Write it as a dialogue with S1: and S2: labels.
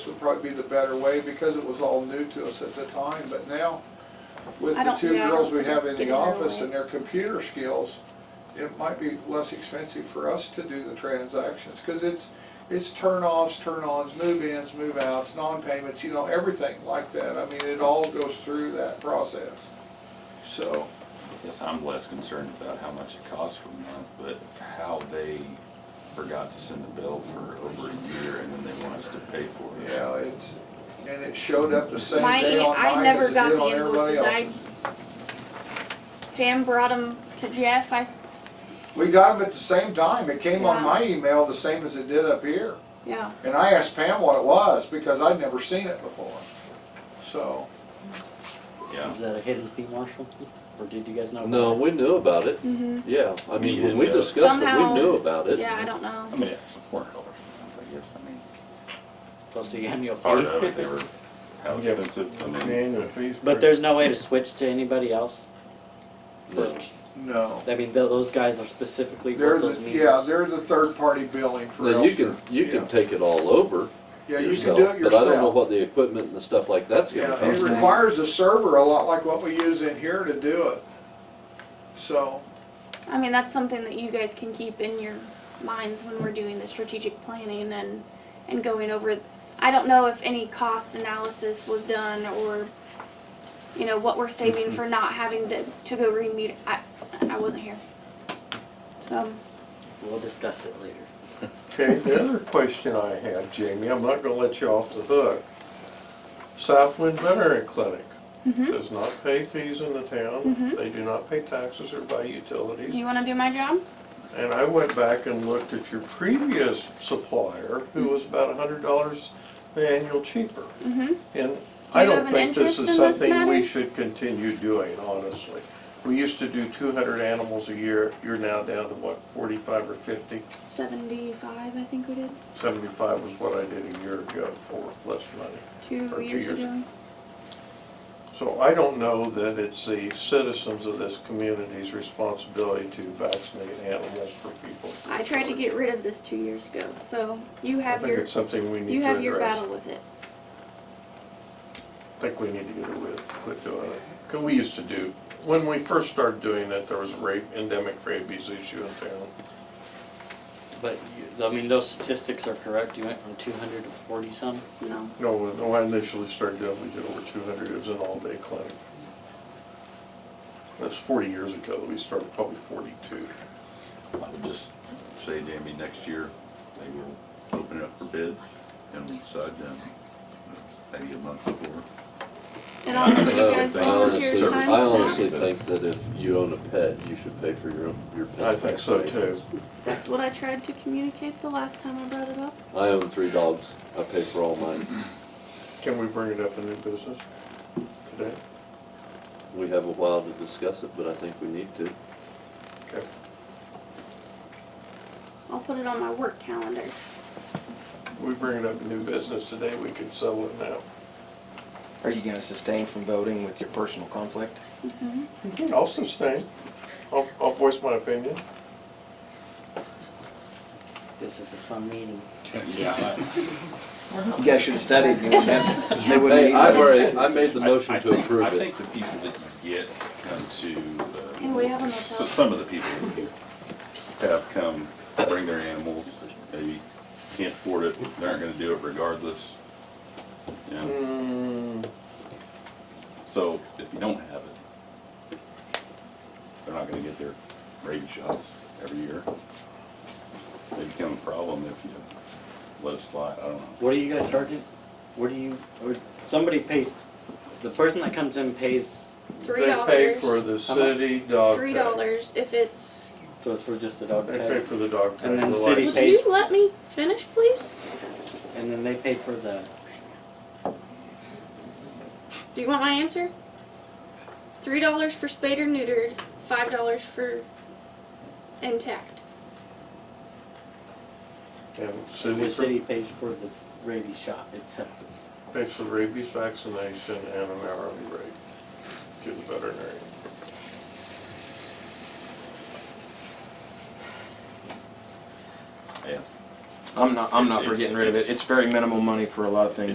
S1: This would probably be the better way because it was all new to us at the time, but now with
S2: I
S1: the
S2: don't-
S1: two
S2: yeah, I
S1: girls
S2: don't
S1: we have in
S2: suggest
S1: the
S2: giving it
S1: office
S2: away.
S1: and their computer skills, it might be less expensive for us to do the transactions, cause it's, it's turn-offs, turn-ons, move-ins, move-outs, non-payments, you know, everything like that. I mean, it all goes through that process. So,
S3: Yes, I'm less concerned about how much it costs for a month, but how they forgot to send the bill for over a year and then they want us to pay for it.
S1: yeah, it's, and it showed up the same
S2: My
S1: day
S2: in-
S1: on
S2: I
S1: mine
S2: never
S1: as it
S2: got
S1: did
S2: the
S1: on everybody
S2: invoices. I-
S1: else's.
S2: Pam brought them to Jeff, I,
S1: We got them at the same time. It came on
S2: Yeah.
S1: my email the same as it did up here.
S2: yeah,
S1: And I asked Pam what it was because I'd never seen it before. So,
S3: Yeah,
S4: Is that a hidden fee, Marshall? Or did you guys know? about
S5: No,
S4: it?
S5: we knew about it,
S2: mhm,
S5: yeah, I mean, when we
S3: Yeah.
S5: discussed it,
S2: Somehow-
S5: we knew about it.
S2: yeah, I don't
S3: I
S2: know.
S3: mean, it's four dollars a month, I guess, I mean,
S4: Plus the annual
S3: part of it, they
S4: fee.
S3: were, how expensive, I mean,
S6: Annual fees.
S4: But there's no way to switch to anybody else?
S5: No.
S1: no.
S4: I mean, tho- those guys are specifically
S1: They're
S4: for
S1: the,
S4: those meetings.
S1: yeah, they're the third party billing for
S5: Then you can,
S1: Elster.
S5: you
S1: Yeah.
S5: can take it all over
S1: Yeah, you can
S5: yourself,
S1: do it
S5: but I don't know
S1: yourself.
S5: what the equipment and the stuff like that's gonna
S1: Yeah, it
S5: cost. Uh,
S1: requires a server a lot like what we use in here to do it. So,
S2: I mean, that's something that you guys can keep in your minds when we're doing the strategic planning and, and going over. I don't know if any cost analysis was done or, you know, what we're saving for not having to, to go re-meet, I, I wasn't here. So,
S4: We'll discuss it later.
S6: Okay, the other question I have, Jamie, I'm not gonna let you off the hook. Southwind Veteran Clinic
S2: mhm.
S6: does not pay fees in the town.
S2: Mhm.
S6: They do not pay taxes or buy
S2: do
S6: utilities.
S2: you wanna do my job?
S6: And I went back and looked at your previous supplier, who
S2: Hmm.
S6: was about a hundred dollars annual cheaper.
S2: Mm-hmm.
S6: And I
S2: you
S6: don't
S2: have an
S6: think this
S2: interest
S6: is
S2: in this
S6: something we
S2: matter?
S6: should continue doing, honestly. We used to do two hundred animals a year. You're now down to what, forty-five or fifty?
S2: Seventy-five, I think we did,
S6: 75 was what I did a year ago for less money. Or
S2: two
S6: two
S2: years
S6: years
S2: ago.
S6: So I don't know that it's the citizens of this community's responsibility to vaccinate animals for people.
S2: I tried to get rid of this two years ago, so you
S6: I
S2: have
S6: think
S2: your,
S6: it's something we need
S2: you
S6: to
S2: have your
S6: address.
S2: battle with it.
S6: I think we need to get away, quit doing it. 'Cause we used to do, when we first started doing it, there was a rape, endemic rabies issue in town.
S4: But, you- I mean, those statistics are correct. You went from two hundred to forty some?
S2: No,
S6: No, when I initially started doing, it, we did over 200, it was an all-day clinic. That's 40 years ago, we started probably 42.
S3: I would just say, Jamie, next year, they will open it up for bids and we decide then, maybe a month before.
S2: and I'll let you
S5: I
S2: guys volunteer
S5: honestly-
S2: your time
S5: I honestly
S2: for that.
S5: think that if you own a pet, you should pay for your, own- your pet.
S6: I think so too.
S2: That's what I tried to communicate the last time I brought it up.
S5: I own three dogs, I pay for all mine,
S6: Can we bring it up in new business today?
S5: we have a while to discuss it, but I think we need to.
S6: Okay.
S2: I'll put it on my work calendar.
S6: We bring it up in new business today, we could settle it now.
S7: Are you gonna sustain from voting with your personal conflict?
S6: Mm-hmm. I'll sustain. I'll, I'll voice my opinion.
S4: This is a fun meeting.
S7: You guys should've studied, you wouldn't have, they wouldn't
S5: Hey,
S7: need
S5: I've
S7: it.
S5: already, I made the
S3: I- I
S5: motion to
S3: think-
S5: approve
S3: I
S5: it.
S3: think the people that you get come to. uh,
S2: Hey, we have enough
S3: s-
S2: help.
S3: Some of the people that you have come bring their animals, maybe can't afford it, they aren't gonna do it regardless. You know,
S6: Hmm,
S3: so if you don't have it, they're not gonna get their rabies shots every year. They become a problem if you let it slide, I don't know.
S4: What are you guys charging? What do you, or, somebody pays, the person that comes in pays,
S2: Three
S6: They pay
S2: dollars,
S6: for the
S4: How much?
S6: city dog
S2: three
S6: tag.
S2: dollars if it's,
S4: so it's for just the dog
S6: They pay
S4: tag?
S6: for the dog tag.
S4: And then the
S6: license.
S4: He
S2: would
S4: pays-
S2: you let me finish, please?
S4: And then they pay for the,
S2: Do you want my answer? Three dollars for spayed or neutered, five dollars for intact.
S6: And the
S4: the
S6: city
S4: city pays for the rabies shot itself.
S6: pays for rabies vaccination and an hourly rate to the veterinarian.
S3: Yeah.
S7: I'm not, I'm not for getting rid of it, it's very minimal money for a lot of things.